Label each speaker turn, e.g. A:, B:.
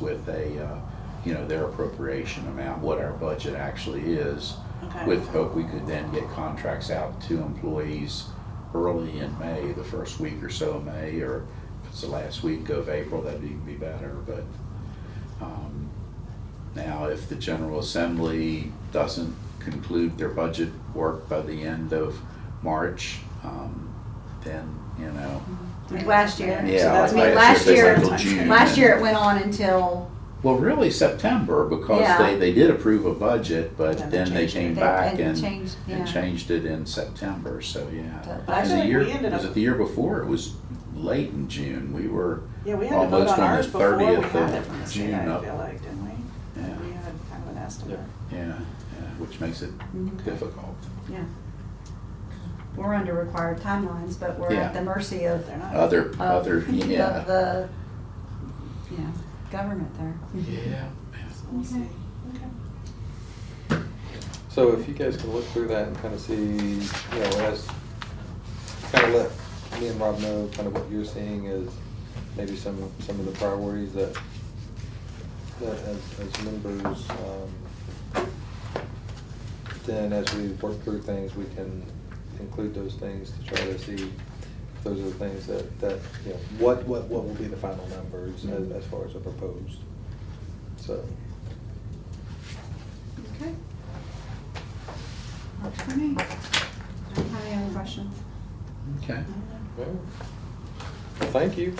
A: with a, uh, you know, their appropriation amount, what our budget actually is,
B: Okay,
A: with hope we could then get contracts out to employees early in May, the first week or so of May, or if it's the last week of April, that'd even be better, but, um, now, if the General Assembly doesn't conclude their budget work by the end of March, um, then, you know,
C: Like last year.
A: Yeah,
C: So that's- I mean,
A: like
C: last
A: last
C: year,
A: year, they went till June.
C: last year it went on until,
A: Well, really September, because
C: Yeah.
A: they, they did approve a budget, but
B: Then
A: then
B: they
A: they
B: changed
A: came
C: it.
A: back
C: They- and
A: and,
C: changed, yeah.
A: and changed it in September, so yeah.
C: But I
A: And
B: feel
A: the
B: like
A: year,
B: we ended
A: was
B: up-
A: it the year before? It was late in June, we were,
B: yeah, we had to vote
A: almost
B: on
A: on the
B: ours before we
A: 30th
B: got it
A: of
B: from the
A: June
B: state, I
A: up.
B: feel like, didn't we?
A: yeah,
B: We had kind of an estimate.
A: yeah, yeah, which makes it difficult.
C: yeah. We're under required timelines, but we're
A: Yeah.
C: at the mercy
B: But
C: of,
B: they're not.
A: Other,
C: of,
A: other,
C: of
A: yeah.
C: the, yeah, government there.
A: Yeah.
B: So we'll see.
C: Okay.
B: Okay.
D: So if you guys can look through that and kind of see, you know, as, kind of let me and Rob know kind of what you're seeing is maybe some, some of the priorities that, that as, as members, um, then as we work through things, we can include those things to try to see if those are the things that, that, you know, what, what, what will be the final numbers as, as far as the proposed, so.
C: Okay. Works for me. I don't have any other questions.
A: Okay.
D: Well, thank you.